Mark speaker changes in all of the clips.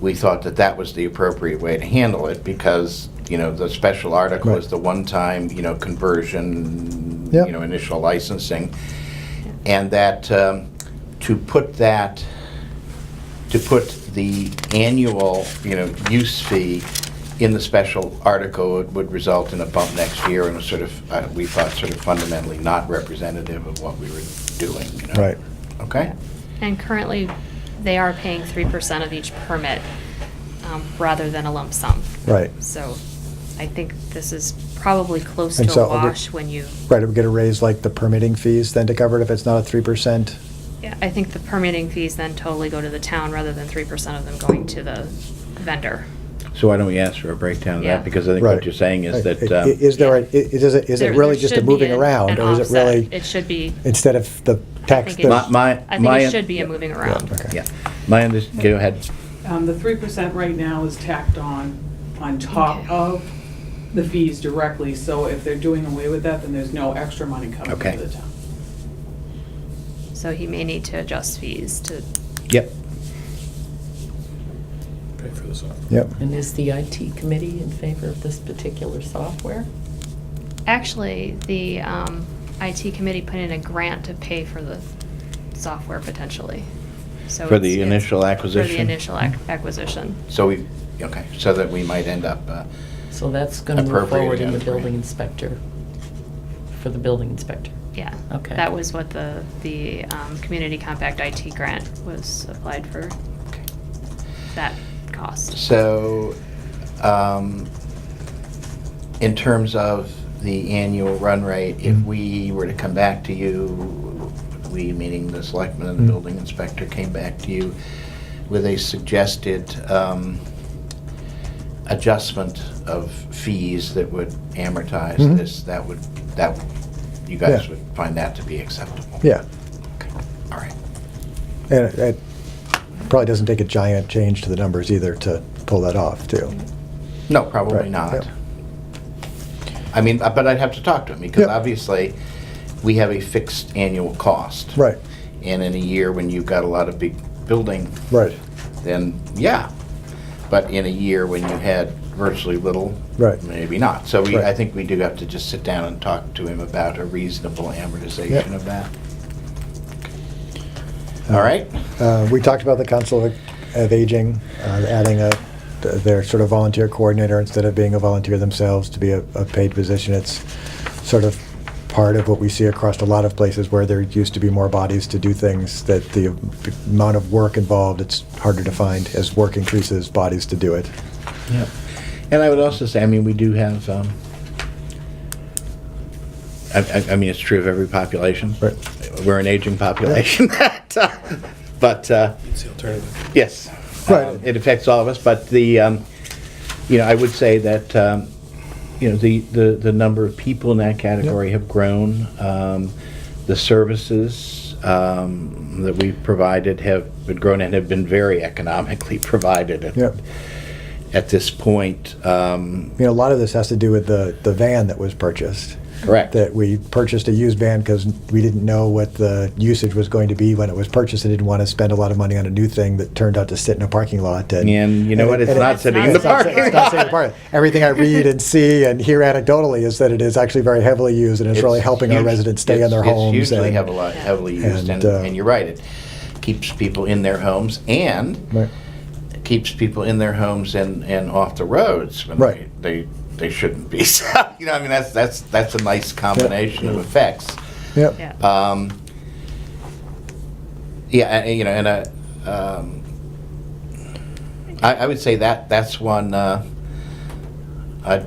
Speaker 1: we thought that that was the appropriate way to handle it because, you know, the special article
Speaker 2: Right.
Speaker 1: is the one-time, you know, conversion,
Speaker 2: Yep.
Speaker 1: you know, initial licensing. And that, um, to put that, to put the annual, you know, use fee in the special article would- would result in a bump next year and was sort of, uh, we thought sort of fundamentally not representative of what we were doing, you know?
Speaker 2: Right.
Speaker 1: Okay?
Speaker 3: And currently, they are paying 3% of each permit um, rather than a lump sum.
Speaker 2: Right.
Speaker 3: So I think this is probably close
Speaker 2: And
Speaker 3: to
Speaker 2: so
Speaker 3: a
Speaker 2: it would-
Speaker 3: wash when you,
Speaker 2: Right, it would get a raise like the permitting fees then to cover it if it's not a three percent?
Speaker 3: Yeah, I think the permitting fees then totally go to the town rather than 3% of them going to the vendor.
Speaker 1: So why don't we ask for a breakdown of
Speaker 3: Yeah.
Speaker 1: that? Because I think what you're saying is that, um,
Speaker 2: Is there, a- i- is it, is
Speaker 3: There-
Speaker 2: it really
Speaker 3: there
Speaker 2: just a
Speaker 3: should be
Speaker 2: moving
Speaker 3: an-
Speaker 2: around?
Speaker 3: an
Speaker 2: Or is it
Speaker 3: offset.
Speaker 2: really,
Speaker 3: It should be,
Speaker 2: instead of the
Speaker 3: I
Speaker 2: tax?
Speaker 3: think
Speaker 2: the-
Speaker 1: My- my-
Speaker 3: it- I think
Speaker 1: my-
Speaker 3: it should be a moving around.
Speaker 2: Okay.
Speaker 1: yeah, my under, go ahead.
Speaker 4: Um, The three percent right now is tacked on, on top
Speaker 3: Okay.
Speaker 4: of the fees directly, so if they're doing away with that, then there's no extra money coming
Speaker 1: Okay.
Speaker 4: to the town.
Speaker 3: So he may need to adjust fees to,
Speaker 1: Yep.
Speaker 5: Pay for the software.
Speaker 2: Yep,
Speaker 6: And is the IT committee in favor of this particular software?
Speaker 3: actually, the um, IT committee put in a grant to pay for the software potentially. So
Speaker 1: For
Speaker 3: it's-
Speaker 1: the
Speaker 3: it's-
Speaker 1: initial
Speaker 3: For
Speaker 1: acquisition?
Speaker 3: the initial ac- acquisition.
Speaker 1: So we, okay, so that we might end up, uh,
Speaker 6: So that's going to move
Speaker 1: Appropriate,
Speaker 6: forward
Speaker 1: yeah,
Speaker 6: in the
Speaker 1: that's right.
Speaker 6: building inspector, for the building inspector.
Speaker 3: Yeah.
Speaker 6: Okay.
Speaker 3: That was what the, the um, Community Compact IT grant was applied for, that cost.
Speaker 1: so, um, in terms of the annual run rate, if
Speaker 2: Mhm.
Speaker 1: we were to come back to you, we, meaning the selectman and the
Speaker 2: Mhm.
Speaker 1: building inspector, came back to you with a suggested, um, adjustment of fees that would amortize
Speaker 2: Mhm.
Speaker 1: this, that would, that, you guys
Speaker 2: Yeah.
Speaker 1: would find that to be acceptable?
Speaker 2: yeah.
Speaker 1: Okay. All right.
Speaker 2: And it- it probably doesn't take a giant change to the numbers either to pull that off, too.
Speaker 1: No, probably
Speaker 2: Right,
Speaker 1: not.
Speaker 2: yeah.
Speaker 1: I mean, uh, but I'd have to talk to him, because
Speaker 2: Yeah.
Speaker 1: obviously, we have a fixed annual cost.
Speaker 2: Right,
Speaker 1: And in a year when you've got a lot of big building,
Speaker 2: right,
Speaker 1: then, yeah. But in a year when you had virtually little,
Speaker 2: Right.
Speaker 1: maybe not. So we, I
Speaker 2: Right.
Speaker 1: think we do have to just sit down and talk to him about a reasonable amortization
Speaker 2: Yeah.
Speaker 1: of that.
Speaker 2: Uh,
Speaker 1: All right?
Speaker 2: Uh, We talked about the Council of- of Aging, uh, adding a, their sort of volunteer coordinator instead of being a volunteer themselves to be a a paid position. It's sort of part of what we see across a lot of places where there used to be more bodies to do things, that the amount of work involved, it's harder to find. As work increases, bodies to do it.
Speaker 1: Yep. And I would also say, I mean, we do have, um, I, I, I mean, it's true of every population.
Speaker 2: Right.
Speaker 1: We're an aging population, but, uh,
Speaker 5: It's the alternative.
Speaker 1: yes.
Speaker 2: Right.
Speaker 1: Um, It affects all of us, but the, um, you know, I would say that, um, you know, the, the, the number of people in that category have grown. Um, The services, um, that we've provided have been grown and have been very economically provided at,
Speaker 2: Yep.
Speaker 1: at this point. Um,
Speaker 2: You know, a lot of this has to do with the, the van that was purchased.
Speaker 1: Correct.
Speaker 2: That we purchased a used van because we didn't know what the usage was going to be when it was purchased and didn't want to spend a lot of money on a new thing that turned out to sit in a parking lot. And,
Speaker 1: And you know what? It's
Speaker 2: and it-
Speaker 1: not
Speaker 2: it's
Speaker 1: sitting in the
Speaker 2: it's not sit-
Speaker 1: parking
Speaker 2: it's not sitting in
Speaker 1: lot.
Speaker 2: the parking lot. Everything I read and see and hear anecdotally is that it is actually very heavily used and it's, really helping our
Speaker 1: huge-
Speaker 2: residents stay in
Speaker 1: it's-
Speaker 2: their
Speaker 1: it's
Speaker 2: homes.
Speaker 1: hugely
Speaker 2: and-
Speaker 1: heavily, heavily used, and,
Speaker 2: And, uh,
Speaker 1: and you're right. It keeps people in their homes and
Speaker 2: Right.
Speaker 1: keeps people in their homes and, and off the roads when
Speaker 2: Right.
Speaker 1: they, they they shouldn't be. So, you know, I mean, that's that's that's a nice combination of effects.
Speaker 2: Yep.
Speaker 3: Yeah.
Speaker 1: Um, yeah, and- and, you know, and uh, um, I, I would say that that's one uh, I'd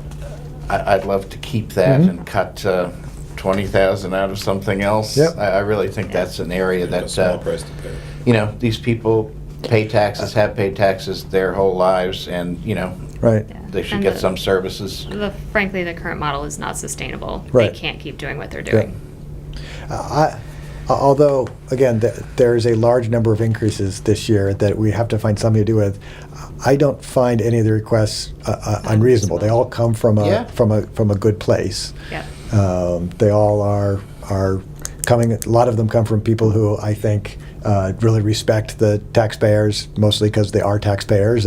Speaker 1: I- I'd love to keep that
Speaker 3: Mm-hmm.
Speaker 2: Mhm.
Speaker 1: and cut uh, twenty thousand out of something else.
Speaker 2: Yep.
Speaker 1: I, I really think
Speaker 3: Yeah.
Speaker 1: that's an area
Speaker 5: It's a
Speaker 1: that
Speaker 5: Small
Speaker 1: uh,
Speaker 5: price to pay.
Speaker 1: you know these people pay taxes, have paid taxes their whole lives, and you know
Speaker 2: Right.
Speaker 3: Yeah.
Speaker 1: they should
Speaker 3: And
Speaker 1: get
Speaker 3: the-
Speaker 1: some services.
Speaker 3: The, frankly, the current model is not sustainable.
Speaker 2: Right.
Speaker 3: They can't keep doing what they're
Speaker 2: Yeah.
Speaker 3: doing.
Speaker 2: Uh, I- Although, again, th- there is a large number of increases this year that we have to find something to do with, uh, I don't find any of the requests uh, uh, unreasonable. They all come from
Speaker 1: Yeah.
Speaker 2: a, from a, from a good place.
Speaker 3: Yep.
Speaker 2: Um, They all are, are coming, a lot of them come from people who I think uh, really respect the taxpayers, mostly because they are taxpayers